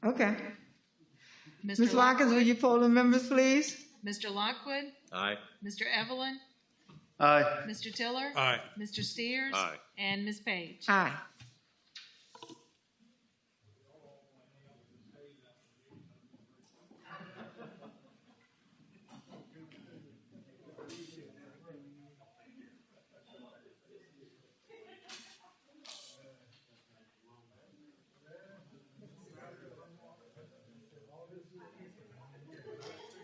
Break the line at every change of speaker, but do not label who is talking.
Okay. Ms.
Mr. Lock-
Watkins, will you poll the members, please?
Mr. Lockwood,
Aye.
Mr. Evelyn,
Aye.
Mr. Tiller,
Aye.
Mr. Steers,
Aye.
and Ms. Page.
Aye.